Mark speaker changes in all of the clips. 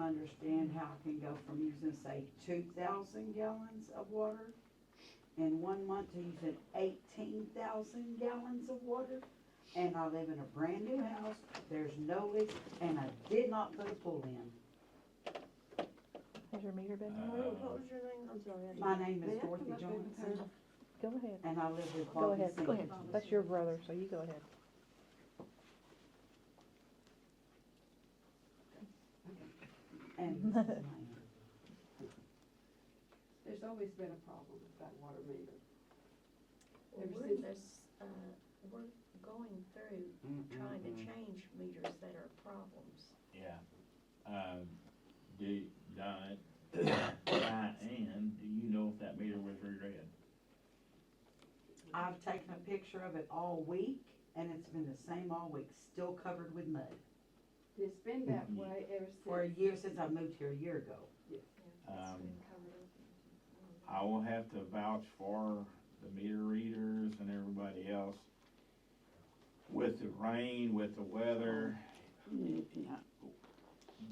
Speaker 1: understand how it can go from using, say, two thousand gallons of water in one month to using eighteen thousand gallons of water. And I live in a brand new house, there's no leaks, and I did not put a pool in.
Speaker 2: Has your meter been
Speaker 3: Uh,
Speaker 2: removed?
Speaker 4: What was your name? I'm sorry. I didn't-
Speaker 1: My name
Speaker 4: May I
Speaker 1: is
Speaker 4: come
Speaker 1: Dorothy
Speaker 4: up and
Speaker 1: Johnson,
Speaker 4: turn-
Speaker 2: Go ahead.
Speaker 1: and I live with
Speaker 2: Go
Speaker 1: Bobby
Speaker 2: ahead, go ahead.
Speaker 1: Senior.
Speaker 2: That's your brother, so you go ahead.
Speaker 1: And this is my
Speaker 4: There's always been a problem with that water meter.
Speaker 5: Well,
Speaker 4: Ever
Speaker 5: we're
Speaker 4: since-
Speaker 5: this, uh, we're going through trying to change meters that are problems.
Speaker 3: Yeah. Um, do, Di- Diane, do you know if that meter was reread?
Speaker 1: I've taken a picture of it all week, and it's been the same all week, still covered with mud.
Speaker 4: It's been that
Speaker 5: Mm-hmm.
Speaker 4: way ever since.
Speaker 1: For a year since I moved here a year ago.
Speaker 3: Um, I will have to vouch for the meter readers and everybody else. With the rain, with the weather,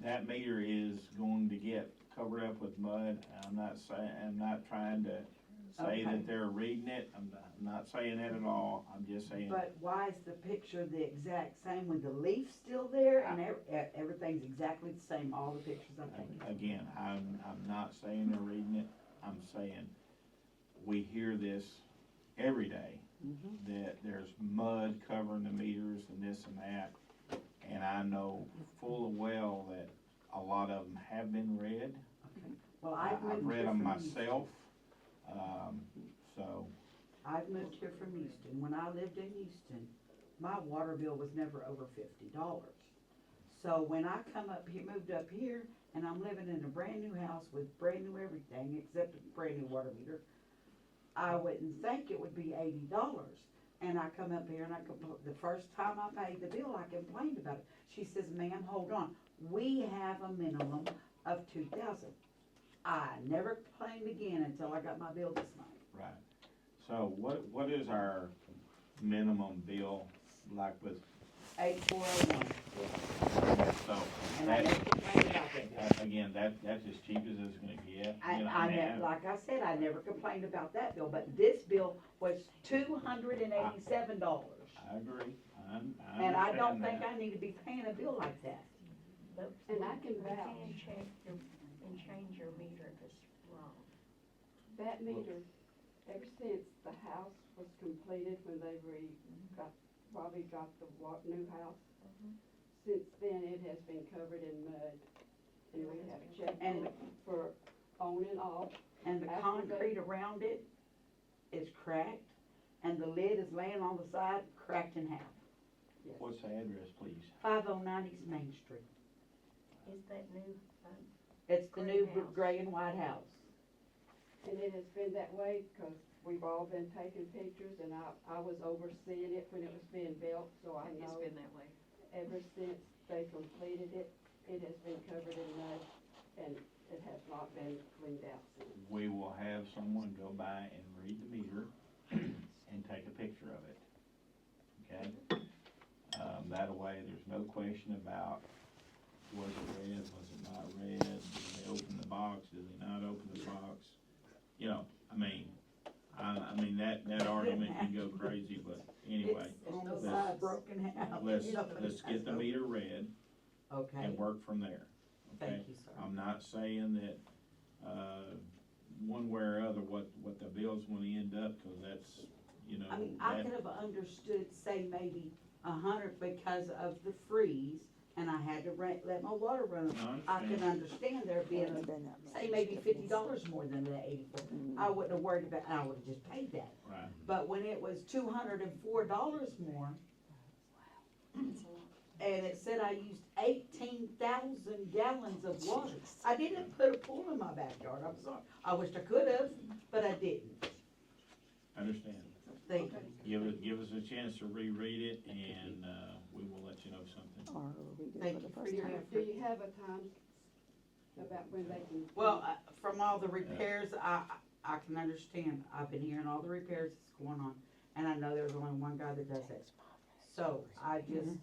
Speaker 3: that meter is going to get covered up with mud. I'm not saying, I'm not trying to say
Speaker 1: Okay.
Speaker 3: that they're reading it, I'm not- I'm not saying that at all, I'm just saying.
Speaker 1: But why is the picture the exact same with the leaf still there and ev- e- everything's exactly the same, all the pictures I've taken?
Speaker 3: Again, I'm, I'm not saying they're reading it, I'm saying, we hear this every day, that there's mud covering the meters and this and that. And I know full well that a lot of them have been read.
Speaker 1: Well, I've
Speaker 3: I- I've
Speaker 1: moved here
Speaker 3: read them
Speaker 1: from
Speaker 3: myself, um, so,
Speaker 1: Houston. I've moved here from Houston. When I lived in Houston, my water bill was never over fifty dollars. So when I come up here, moved up here, and I'm living in a brand new house with brand new everything except a brand new water meter, I wouldn't think it would be eighty dollars. And I come up here and I compl- the first time I paid the bill, I complained about it. She says, ma'am, hold on, we have a minimum of two thousand. I never complained again until I got my bill this month.
Speaker 3: right. So what, what is our minimum bill, like with,
Speaker 1: Eight four oh one,
Speaker 3: so,
Speaker 1: and I
Speaker 3: that,
Speaker 1: never complained about that bill.
Speaker 3: that- again, that, that's as cheap as it's gonna get.
Speaker 1: I,
Speaker 3: you know,
Speaker 1: I
Speaker 3: and
Speaker 1: never, like I said, I never complained about that bill, but this bill was two hundred and eighty-seven dollars.
Speaker 3: I agree, I, I understand that.
Speaker 1: And I don't think I need to be paying a bill like that.
Speaker 5: But
Speaker 4: And I can
Speaker 5: You can
Speaker 4: vouch,
Speaker 5: check your, and change your meter if it's wrong.
Speaker 4: that meter, ever since the house was completed, when they re,
Speaker 5: Mm-hmm.
Speaker 4: got, Bobby got the wa, new house, since then, it has been covered in mud. And we have checked
Speaker 1: And-
Speaker 4: it for on and off.
Speaker 1: And the concrete around it is cracked, and the lid is laying on the side, cracked in half.
Speaker 4: Yes.
Speaker 3: What's the address, please?
Speaker 1: Five oh nine East Main Street.
Speaker 5: Is that new? uh,
Speaker 1: It's the new
Speaker 5: Green house.
Speaker 1: gray and white house.
Speaker 4: And it has been that way because we've all been taking pictures and I, I was overseeing it when it was being built, so I
Speaker 5: It's
Speaker 4: know.
Speaker 5: been that way.
Speaker 4: Ever since they completed it, it has been covered in mud and it has not been cleaned out since.
Speaker 3: We will have someone go by and read the meter and take a picture of it, okay? Um, that way, there's no question about was it red, was it not red, did they open the box, did they not open the box? You know, I mean, I, I mean, that, that argument can go crazy, but anyway,
Speaker 1: It's on the
Speaker 3: let's-
Speaker 1: side, broken house.
Speaker 3: let's, let's get the meter read
Speaker 1: Okay,
Speaker 3: and work from there, okay?
Speaker 1: thank you, sir.
Speaker 3: I'm not saying that, uh, one way or other, what, what the bill's gonna end up, cause that's, you know,
Speaker 1: I mean, I could
Speaker 3: that,
Speaker 1: have understood, say, maybe a hundred because of the freeze, and I had to rent, let my water run.
Speaker 3: I
Speaker 1: I can
Speaker 3: understand.
Speaker 1: understand there being, say, maybe fifty dollars more than the eighty-four. I wouldn't have worried about, I would have just paid that.
Speaker 3: right,
Speaker 1: But when it was two hundred and four dollars more, and it said I used eighteen thousand gallons of water, I didn't put a pool in my backyard, I'm sorry. I wished I could have, but I didn't.
Speaker 3: understand.
Speaker 1: Thank you.
Speaker 3: Give us, give us a chance to reread it, and, uh, we will let you know something.
Speaker 6: Or we do
Speaker 1: Thank
Speaker 6: for the
Speaker 1: you for
Speaker 6: first
Speaker 1: your-
Speaker 6: time.
Speaker 4: Do you have a time about when they can?
Speaker 1: Well, uh, from all the repairs, I, I I can understand, I've been hearing all the repairs that's going on, and I know there's only one guy that does it. So I just